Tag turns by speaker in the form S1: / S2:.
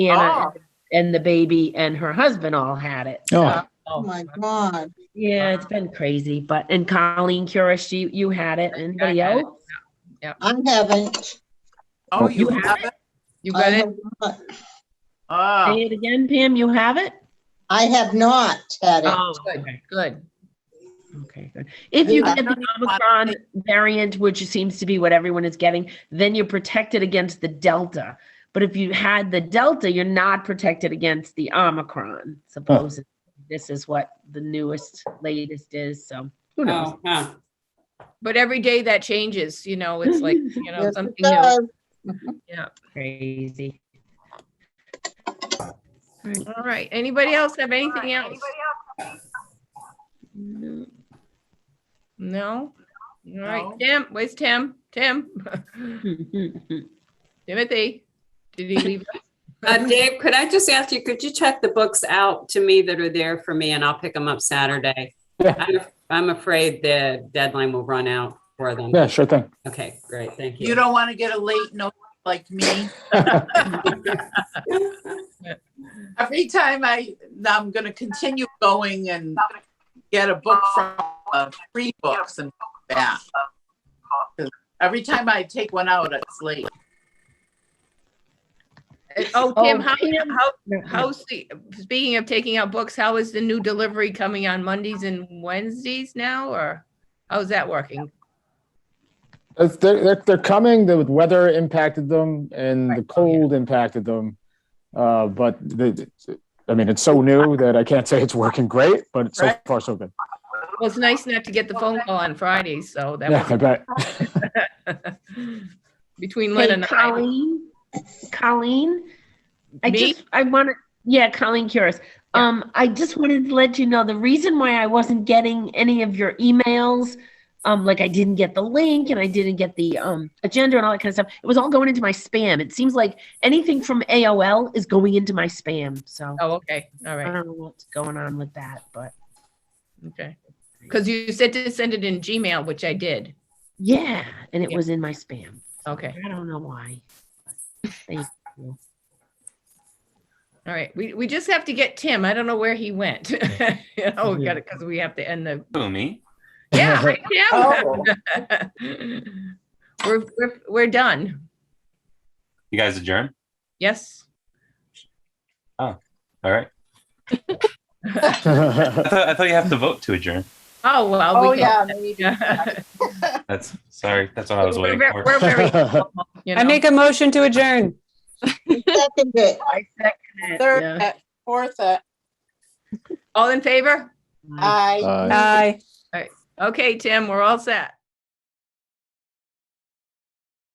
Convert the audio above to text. S1: and, I-
S2: Oh.
S1: and the baby and her husband all had it. So,
S3: Oh,
S2: Oh,
S4: Oh my God.
S1: Yeah, it's been crazy. But and Colleen Curish, you you had it. Anybody
S2: had it.
S1: else?
S4: I haven't. um,
S2: Oh, you
S1: You
S2: have it? You
S4: I
S2: got it?
S4: have not-
S2: Oh,
S1: Say it again, Pam. You have it.
S4: I have not had it.
S2: oh, good, good.
S1: Okay, good. If you
S4: Yeah.
S1: get the Omicron variant, which seems to be what everyone is getting, then you're protected against the Delta. But if you had the Delta, you're not protected against the Omicron. Supposedly, this is what the newest, latest is. So who knows?
S5: Oh, huh.
S2: But every day that changes, you know, it's like, you know,
S4: Yes, it
S2: something new.
S4: does.
S1: Crazy.
S2: All right. Anybody else have anything else? No. No? All right, Tim, where's Tim? Tim?
S1: Mm-hmm.
S2: Timothy? Did he leave?
S5: Uh, Dave, could I just ask you, could you check the books out to me that are there for me and I'll pick them up Saturday?
S3: Yeah.
S5: I'm- I'm afraid the deadline will run out for them.
S3: yeah, sure thing.
S5: Okay, great, thank you.
S6: You don't want to get a late note like me. Every time I, I'm going to continue going and get a book from, uh, free books and that. 'Cause Every time I take one out, it's late.
S2: Oh,
S1: Oh,
S2: Tim, how,
S1: Tim.
S2: how, how's the, speaking of taking out books, how is the new delivery coming on Mondays and Wednesdays now, or how's that working?
S3: It's- They're, they're, they're coming, the weather impacted them and the cold impacted them. Uh, but the, I mean, it's so new that I can't say it's working great, but so
S6: Right.
S3: far so good.
S2: Well, it's nice not to get the phone call on Fridays, so that
S3: Yeah, I
S2: was
S3: bet.
S2: between Lynn
S1: Hey,
S2: and I.
S1: Colleen, Colleen, I
S2: Me?
S1: just, I want to, yeah, Colleen Curis.
S2: Yeah.
S1: Um, I just wanted to let you know the reason why I wasn't getting any of your emails, um, like I didn't get the link and I didn't get the um agenda and all that kind of stuff. It was all going into my spam. It seems like anything from AOL is going into my spam. So
S2: Oh, okay, all
S1: I
S2: right,
S1: don't know what's going on with that, but
S2: okay. Because you said to send it in Gmail, which I did.
S1: yeah, and it
S2: Yeah.
S1: was in my spam.
S2: Okay,
S1: I don't know why.
S2: all right. We, we just have to get Tim. I don't know where he went. You know, we got it, because we have to end the,
S7: Who, me?
S2: yeah, right,
S6: Oh.
S2: Tim.
S5: Oh.
S2: We're, we're, we're done.
S7: You guys adjourn?
S2: Yes.
S7: All right. I thought, I thought you have to vote to adjourn.
S2: Oh, well.
S6: Oh,
S2: we
S6: yeah.
S2: can-
S7: That's sorry. That's what I was
S2: We're
S7: waiting
S2: ve-
S7: for.
S2: We're very, you know.
S5: I make a motion to adjourn.
S4: Second it.
S1: I second
S6: Third, uh, fourth, uh,
S2: All in favor?
S6: I.
S3: Uh,
S5: Aye.
S2: Okay, Tim, we're all set.